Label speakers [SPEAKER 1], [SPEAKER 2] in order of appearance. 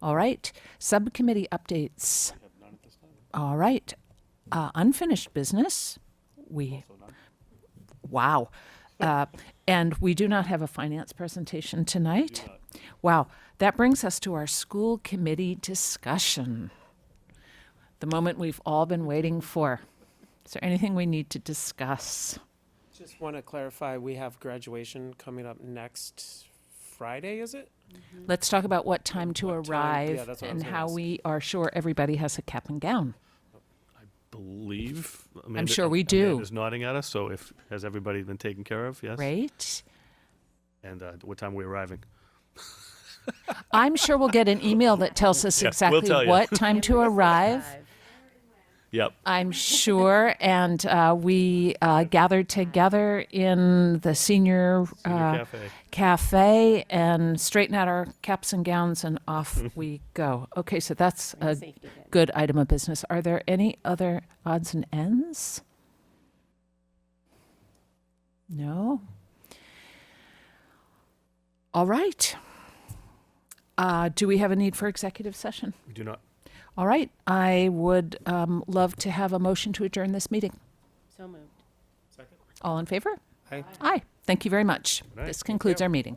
[SPEAKER 1] All right, subcommittee updates. All right, uh, unfinished business. We, wow. Uh, and we do not have a finance presentation tonight. Wow, that brings us to our school committee discussion. The moment we've all been waiting for. Is there anything we need to discuss?
[SPEAKER 2] Just want to clarify, we have graduation coming up next Friday, is it?
[SPEAKER 1] Let's talk about what time to
[SPEAKER 2] What time- yeah,
[SPEAKER 1] arrive
[SPEAKER 2] that's what I was
[SPEAKER 1] and
[SPEAKER 2] gonna
[SPEAKER 1] how
[SPEAKER 2] ask.
[SPEAKER 1] we are sure everybody has a cap and gown.
[SPEAKER 3] believe. I'm
[SPEAKER 1] sure we do.
[SPEAKER 3] Is nodding at us. So if has everybody been taken care of? Yes.
[SPEAKER 1] Right?
[SPEAKER 3] And uh, what time are we arriving?
[SPEAKER 1] I'm sure we'll get an email that tells us
[SPEAKER 3] Yeah, we'll
[SPEAKER 1] exactly
[SPEAKER 3] tell you.
[SPEAKER 1] what time to arrive.
[SPEAKER 3] Yep.
[SPEAKER 1] I'm sure. And uh, we uh, gathered together in the senior,
[SPEAKER 3] Senior
[SPEAKER 1] uh,
[SPEAKER 3] cafe.
[SPEAKER 1] cafe and straighten out our caps and gowns and off we go. Okay, so that's a good item of business. Are there any other odds and ends? No? All right. Uh, do we have a need for executive session?
[SPEAKER 3] We do not.
[SPEAKER 1] All right, I would um, love to have a motion to adjourn this meeting.
[SPEAKER 4] So moved.
[SPEAKER 1] All in favor?
[SPEAKER 2] Aye.
[SPEAKER 1] Aye. Thank you very much.
[SPEAKER 3] Aye.
[SPEAKER 1] This concludes our meeting.